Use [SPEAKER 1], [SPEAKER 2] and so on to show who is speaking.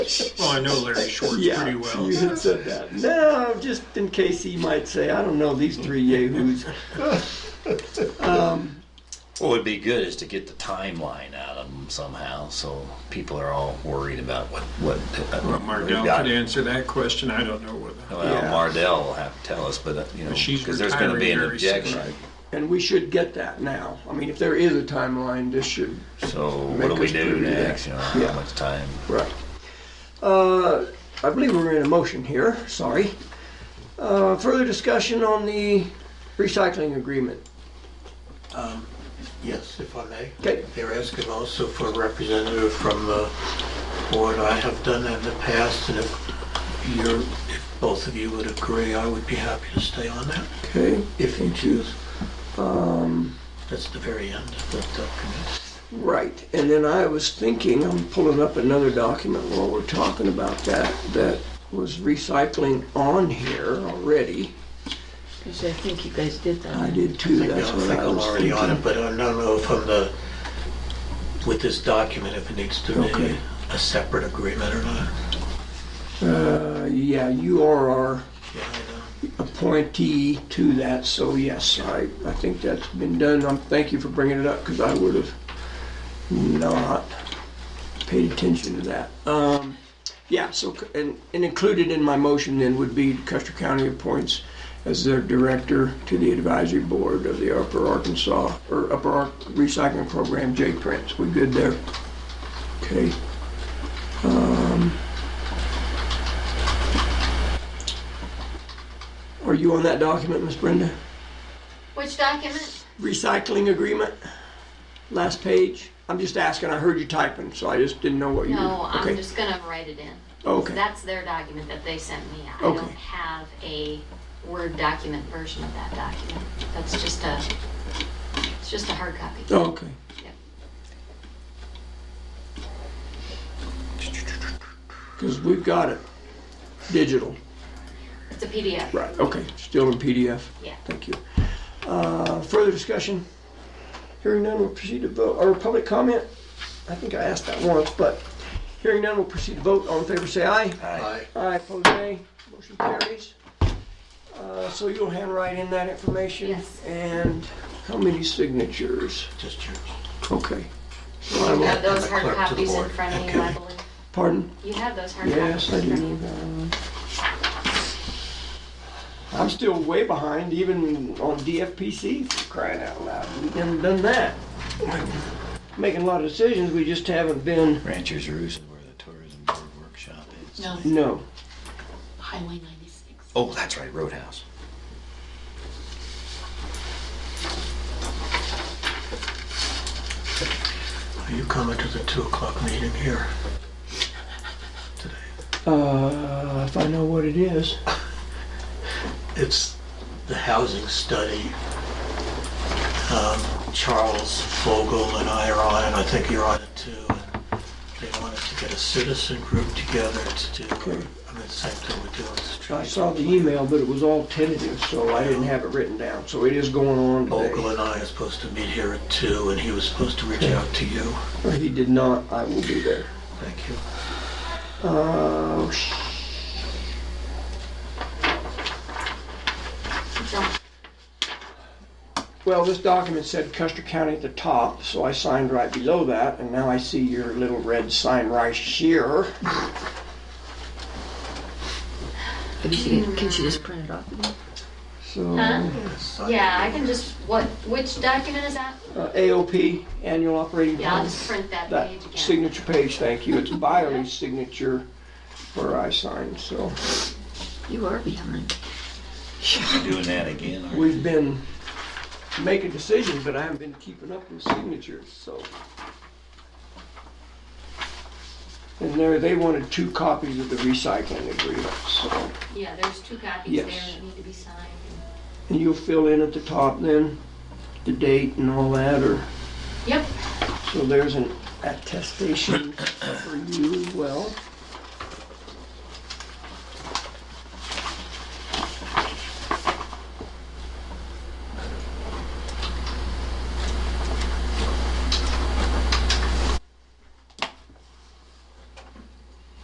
[SPEAKER 1] Well, I know Larry Schwartz
[SPEAKER 2] Yeah,
[SPEAKER 1] pretty well.
[SPEAKER 2] you had said that. No, just in case he might say, I don't know these three yahoos.
[SPEAKER 3] What would be good is to get the timeline out of them somehow, so people are all worried about what what.
[SPEAKER 1] Well,
[SPEAKER 3] Uh, we've
[SPEAKER 1] Mardell
[SPEAKER 3] got.
[SPEAKER 1] could answer that question. I don't know whether.
[SPEAKER 3] Well,
[SPEAKER 2] Yeah.
[SPEAKER 3] Mardell will have to tell us, but uh, you know,
[SPEAKER 1] She's
[SPEAKER 3] because there's going to be an
[SPEAKER 1] retiring very soon.
[SPEAKER 3] objection.
[SPEAKER 2] And we should get that now. I mean, if there is a timeline, this should,
[SPEAKER 3] So
[SPEAKER 2] Make
[SPEAKER 3] what do we
[SPEAKER 2] us
[SPEAKER 3] do
[SPEAKER 2] do that.
[SPEAKER 3] next? You know,
[SPEAKER 2] Yeah.
[SPEAKER 3] how much time?
[SPEAKER 2] right. Uh, I believe we're in a motion here, sorry. Uh, further discussion on the recycling agreement.
[SPEAKER 4] Yes, if I may.
[SPEAKER 2] Okay.
[SPEAKER 4] They're asking also for a representative from the board. I have done that in the past, and if you're, if both of you would agree, I would be happy to stay on that,
[SPEAKER 2] Okay.
[SPEAKER 4] if you choose.
[SPEAKER 2] Um,
[SPEAKER 4] That's the very end of that document.
[SPEAKER 2] right. And then I was thinking, I'm pulling up another document while we're talking about that, that was recycling on here already.
[SPEAKER 5] Because I think you guys did that.
[SPEAKER 2] I did too,
[SPEAKER 4] I
[SPEAKER 2] that's
[SPEAKER 4] don't
[SPEAKER 2] what
[SPEAKER 4] think
[SPEAKER 2] I
[SPEAKER 4] I'm
[SPEAKER 2] was
[SPEAKER 4] already on it,
[SPEAKER 2] thinking.
[SPEAKER 4] but I don't know if I'm the, with this document, if it needs to be
[SPEAKER 2] Okay.
[SPEAKER 4] a separate agreement or not.
[SPEAKER 2] Uh, yeah, you are our
[SPEAKER 4] Yeah, I know.
[SPEAKER 2] appointee to that, so yes, I, I think that's been done. Um, thank you for bringing it up, because I would have not paid attention to that. Um, yeah, so, c- and, and included in my motion then would be Custer County appoints as their director to the advisory board of the Upper Arkansas, or Upper Ark Recycling Program, Jay Prince. We good there? Okay. Um, Are you on that document, Miss Brenda?
[SPEAKER 6] Which document?
[SPEAKER 2] recycling agreement, last page. I'm just asking, I heard you typing, so I just didn't know what you were.
[SPEAKER 6] No, I'm
[SPEAKER 2] okay.
[SPEAKER 6] just gonna write it in.
[SPEAKER 2] Okay.
[SPEAKER 6] That's their document that they sent me. I
[SPEAKER 2] Okay.
[SPEAKER 6] don't have a Word document version of that document. That's just a, it's just a hard copy.
[SPEAKER 2] Okay.
[SPEAKER 6] Yep.
[SPEAKER 2] Because we've got it, digital.
[SPEAKER 6] It's a PDF.
[SPEAKER 2] Right, okay, still in PDF.
[SPEAKER 6] Yeah.
[SPEAKER 2] Thank you. Uh, Further discussion? Hearing none, we'll proceed to vote, or public comment? I think I asked that once, but hearing none, we'll proceed to vote. All in favor, say aye.
[SPEAKER 4] Aye.
[SPEAKER 2] Aye, opposed nay, motion carries. Uh, So you'll handwrite in that information?
[SPEAKER 6] Yes.
[SPEAKER 2] And how many signatures?
[SPEAKER 4] Just yours.
[SPEAKER 2] Okay. So I
[SPEAKER 6] You
[SPEAKER 2] will,
[SPEAKER 6] have those
[SPEAKER 4] Clerk
[SPEAKER 6] hard
[SPEAKER 4] to the
[SPEAKER 6] copies in
[SPEAKER 4] board.
[SPEAKER 6] front of
[SPEAKER 4] Okay.
[SPEAKER 6] you, I believe.
[SPEAKER 2] pardon?
[SPEAKER 6] You have those hard copies
[SPEAKER 2] Yes, I
[SPEAKER 6] in front of you.
[SPEAKER 2] do. I'm still way behind even on DFPC for crying out loud. We haven't done that. Making a lot of decisions, we just haven't been,
[SPEAKER 3] Ranchers Roost is where the tourism board workshop is.
[SPEAKER 5] No,
[SPEAKER 2] no.
[SPEAKER 5] Highway 96.
[SPEAKER 3] Oh, that's right, Roadhouse.
[SPEAKER 4] Are you coming to the 2 o'clock meeting here today?
[SPEAKER 2] Uh, if I know what it is.
[SPEAKER 4] It's the housing study. Um, Charles Vogel and I are on it, I think you're on it too. and They wanted to get a citizen group together to do, I mean, the same thing we're doing. is
[SPEAKER 2] I
[SPEAKER 4] trying to-
[SPEAKER 2] saw the email, but it was all tentative, so I didn't have it written down. So it is going on
[SPEAKER 4] Vogel
[SPEAKER 2] today.
[SPEAKER 4] and I are supposed to meet here at two, and he was supposed to reach out to you.
[SPEAKER 2] If he did not, I will be there.
[SPEAKER 4] Thank you.
[SPEAKER 2] Uh, sh-
[SPEAKER 6] Don't-
[SPEAKER 2] well, this document said Custer County at the top, so I signed right below that, and now I see your little red sign right here.
[SPEAKER 5] Can she, can she just print it off? again?
[SPEAKER 2] So,
[SPEAKER 6] Huh?
[SPEAKER 2] uh,
[SPEAKER 6] Yeah, I can just, what, which document is that?
[SPEAKER 2] uh, AOP, annual operating
[SPEAKER 6] Yeah, I'll
[SPEAKER 2] plan.
[SPEAKER 6] just print that
[SPEAKER 2] That
[SPEAKER 6] page again.
[SPEAKER 2] signature page, thank you. It's Biley's signature where I signed, so.
[SPEAKER 5] You are behind.
[SPEAKER 3] You're doing that again? aren't you?
[SPEAKER 2] We've been making decisions, but I haven't been keeping up with signatures, so. And there, they wanted two copies of the recycling agreement, so.
[SPEAKER 6] Yeah, there's two copies there
[SPEAKER 2] Yes.
[SPEAKER 6] that need to be signed.
[SPEAKER 2] And you'll fill in at the top then, the date and all that, or,
[SPEAKER 6] Yep,
[SPEAKER 2] so there's an attestation for you as well.